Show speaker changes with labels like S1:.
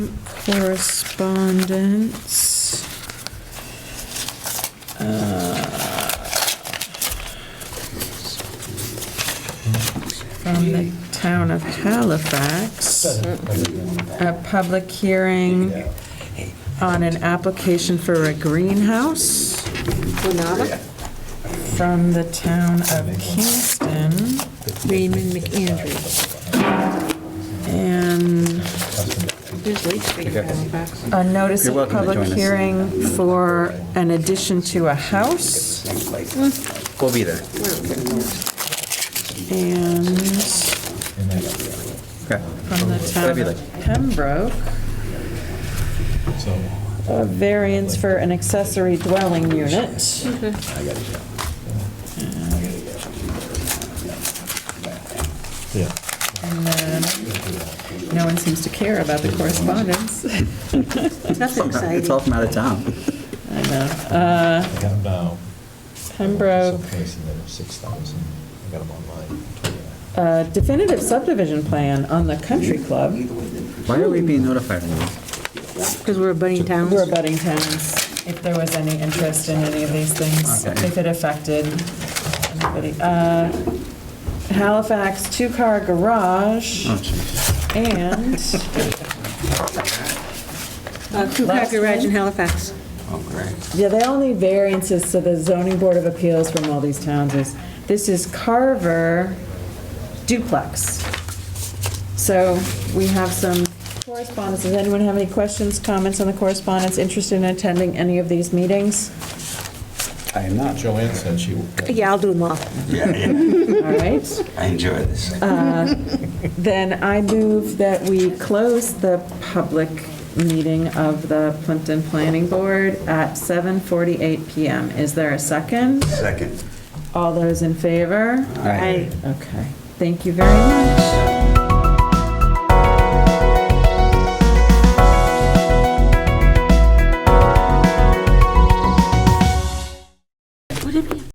S1: Correspondence. From the town of Halifax. A public hearing on an application for a greenhouse from the town of Kingston.
S2: Raymond McAndrew.
S1: And
S2: There's Lake Street in Halifax.
S1: a notice
S3: You're
S1: of
S3: welcome to
S1: public
S3: join us.
S1: hearing for an addition to a house
S3: We'll be there.
S1: and
S3: Okay.
S1: from the town of Pembroke, a variance for an accessory dwelling unit.
S4: Yeah.
S1: And then, no one seems to care about the correspondence.
S2: Nothing
S3: It's all
S2: exciting.
S3: from out of town.
S1: I know. Uh,
S4: I got them now.
S1: Pembroke,
S4: Someplace um, in there, 6,000. I got them online.
S1: uh, definitive subdivision plan on the country club.
S3: Why are we being notified?
S2: Because we're a budding town.
S1: We're abutting towns, if there was any interest in any of these things,
S3: Okay.
S1: if it affected anybody. Uh, Halifax two-car garage
S3: Oh, jeez.
S1: and
S2: Two-car Uh, garage in Halifax.
S3: Oh, great.
S1: Yeah, they all need variances, so the zoning board of appeals from all these towns is, this is Carver duplex. So we have some correspondence. Does anyone have any questions, comments on the correspondence, interested in attending any of these meetings?
S3: I am not.
S4: Joanne said she.
S2: Yeah, I'll do them all.
S1: All right.
S3: I enjoy this.
S1: Then I move that we close the public meeting of the Plimpton Planning Board at 7:48 PM. Is there a second?
S3: Second.
S1: All those in favor?
S3: Aye.
S1: Okay. Thank you very much.